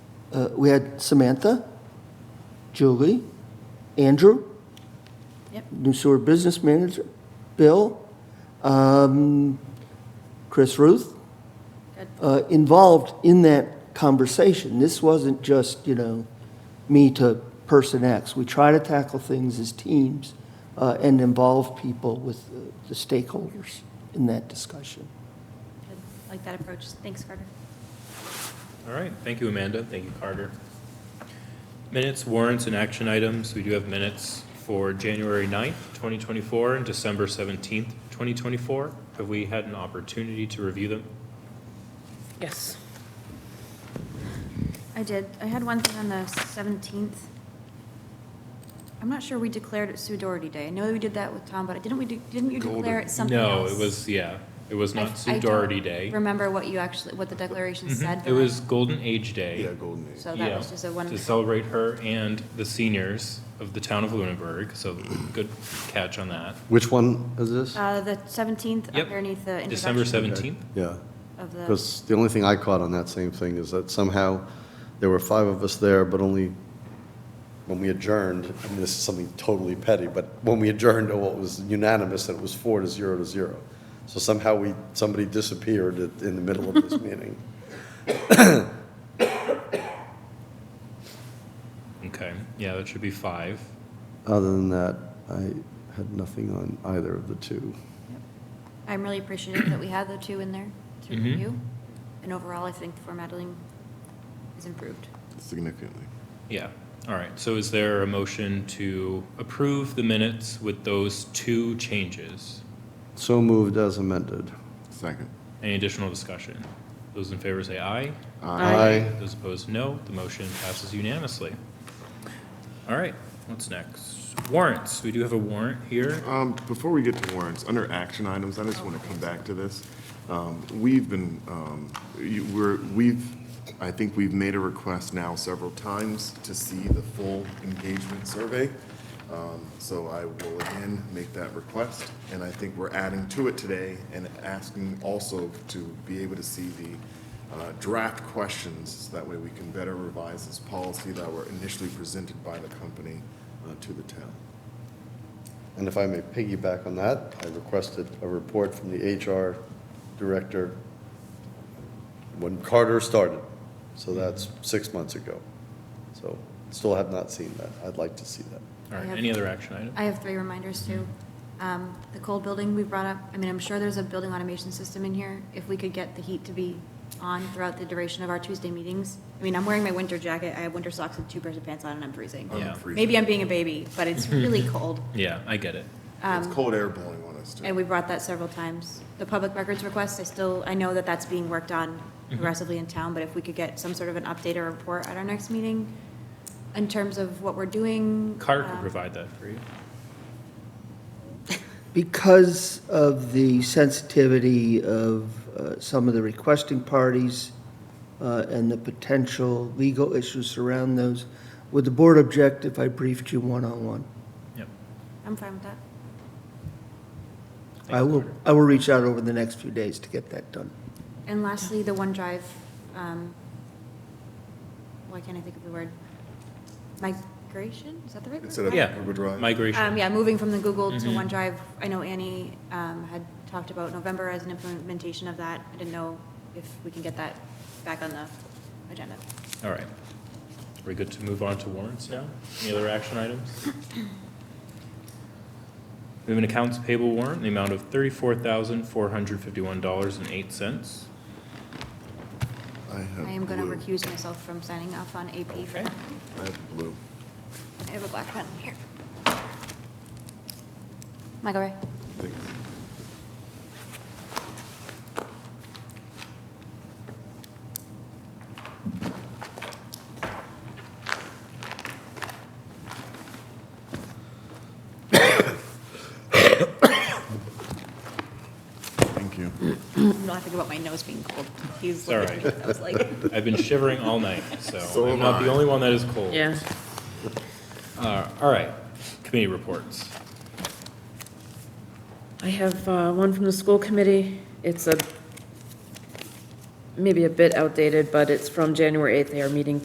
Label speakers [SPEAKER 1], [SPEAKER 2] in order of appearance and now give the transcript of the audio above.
[SPEAKER 1] uh, we had Samantha, Julie, Andrew,
[SPEAKER 2] Yep.
[SPEAKER 1] new sewer business manager, Bill, um, Chris Ruth,
[SPEAKER 2] Good.
[SPEAKER 1] uh, involved in that conversation. This wasn't just, you know, me to person X. We try to tackle things as teams uh, and involve people with uh, the stakeholders in that discussion.
[SPEAKER 2] Good. Like that approach. Thanks, Carter.
[SPEAKER 3] All right, thank you, Amanda, thank you, Carter. Minutes, warrants, and action items, we do have minutes for January 9th, 2024, and December 17th, 2024. Have we had an opportunity to review them?
[SPEAKER 4] Yes.
[SPEAKER 2] I did. I had one thing on the 17th. I'm not sure we declared it Sue Doherty Day. I know we did that with Tom, but didn't we, do- didn't you declare it something
[SPEAKER 3] No,
[SPEAKER 2] else?
[SPEAKER 3] it was, yeah, it was
[SPEAKER 2] I-
[SPEAKER 3] not
[SPEAKER 2] I
[SPEAKER 3] Sue
[SPEAKER 2] don't
[SPEAKER 3] Doherty Day.
[SPEAKER 2] Remember what you actually, what the declaration said?
[SPEAKER 3] Mhm, It
[SPEAKER 2] but I-
[SPEAKER 3] was Golden Age Day.
[SPEAKER 5] Yeah, Golden Age.
[SPEAKER 2] So that
[SPEAKER 3] yeah,
[SPEAKER 2] was just a one,
[SPEAKER 3] To celebrate her and the seniors of the town of Lunenburg, so good catch on that.
[SPEAKER 5] Which one is this?
[SPEAKER 2] uh, the 17th
[SPEAKER 3] Yep.
[SPEAKER 2] underneath the
[SPEAKER 3] December
[SPEAKER 2] introduction
[SPEAKER 3] 17th?
[SPEAKER 5] Yeah,
[SPEAKER 2] of the.
[SPEAKER 5] because the only thing I caught on that same thing is that somehow there were five of us there, but only when we adjourned, I mean, this is something totally petty, but when we adjourned, oh, it was unanimous, and it was four to zero to zero. So somehow we, somebody disappeared at- in the middle of this meeting.
[SPEAKER 3] Okay, yeah, that should be five.
[SPEAKER 5] Other than that, I had nothing on either of the two.
[SPEAKER 2] I'm really appreciative that we have the two in there to
[SPEAKER 3] Mhm.
[SPEAKER 2] review. And overall, I think formatting is improved.
[SPEAKER 5] Significantly.
[SPEAKER 3] Yeah, all right, so is there a motion to approve the minutes with those two changes?
[SPEAKER 5] So moved as amended.
[SPEAKER 6] Second.
[SPEAKER 3] Any additional discussion? Those in favor say aye.
[SPEAKER 5] Aye.
[SPEAKER 3] Those opposed, no. The motion passes unanimously. All right, what's next? Warrants, we do have a warrant here.
[SPEAKER 6] Um, Before we get to warrants, under action items, I just want to come back to this. Um, We've been, um, you- we're, we've, I think we've made a request now several times to see the full engagement survey. Um, So I will again make that request, and I think we're adding to it today and asking also to be able to see the uh, draft questions. That way we can better revise this policy that were initially presented by the company uh, to the town.
[SPEAKER 5] And if I may piggyback on that, I requested a report from the HR director when Carter started. So that's six months ago. So still have not seen that. I'd like to see that.
[SPEAKER 3] All right, any other action item?
[SPEAKER 2] I have three reminders too. Um, The cold building we brought up, I mean, I'm sure there's a building automation system in here. If we could get the heat to be on throughout the duration of our Tuesday meetings. I mean, I'm wearing my winter jacket, I have winter socks and two pairs of pants on and Oh, I'm freezing.
[SPEAKER 3] Yeah.
[SPEAKER 2] Maybe I'm being a baby, but it's really cold.
[SPEAKER 3] Yeah, I get it.
[SPEAKER 6] It's cold air blowing on us, too.
[SPEAKER 2] Um, And we brought that several times. The public records request, I still, I know that that's being worked on aggressively in town, but if we could get some sort of an update or report at our next meeting in terms of what we're doing.
[SPEAKER 3] Carter could
[SPEAKER 2] um,
[SPEAKER 3] provide that for you.
[SPEAKER 1] Because of the sensitivity of uh, some of the requesting parties uh, and the potential legal issues around those, would the board object if I briefed you one-on-one?
[SPEAKER 3] Yep.
[SPEAKER 2] I'm fine with that.
[SPEAKER 1] I will, I will reach out over the next few days to get that done.
[SPEAKER 2] And lastly, the OneDrive, um, why can't I think of the word? Migration, is that the right word?
[SPEAKER 6] Instead of
[SPEAKER 3] Yeah.
[SPEAKER 6] Google Drive.
[SPEAKER 3] Migration.
[SPEAKER 2] Um, yeah, moving from the Google to
[SPEAKER 3] Mhm.
[SPEAKER 2] OneDrive. I know Annie, um, had talked about November as an implementation of that. I didn't know if we can get that back on the agenda.
[SPEAKER 3] All right. We're good to move on to warrants now? Any other action items? We have an accounts payable warrant in the amount of thirty-four thousand, four hundred fifty-one dollars and eight cents.
[SPEAKER 6] I have
[SPEAKER 2] I am going to
[SPEAKER 6] blue.
[SPEAKER 2] recuse myself from signing off on AP for
[SPEAKER 3] Okay.
[SPEAKER 2] that.
[SPEAKER 6] I have blue.
[SPEAKER 2] I have a black pen here. Michael Ray?
[SPEAKER 6] Thanks. Thank you.
[SPEAKER 2] I'm laughing about my nose being cold. He's
[SPEAKER 3] It's all
[SPEAKER 2] looking at me. I was like,
[SPEAKER 3] I've been shivering all night, so
[SPEAKER 6] So
[SPEAKER 3] I'm
[SPEAKER 6] am
[SPEAKER 3] not the
[SPEAKER 6] I.
[SPEAKER 3] only one that is cold.
[SPEAKER 4] Yeah.
[SPEAKER 3] Uh, All right, committee reports.
[SPEAKER 4] I have uh, one from the school committee. It's a, maybe a bit outdated, but it's from January 8th. They are meeting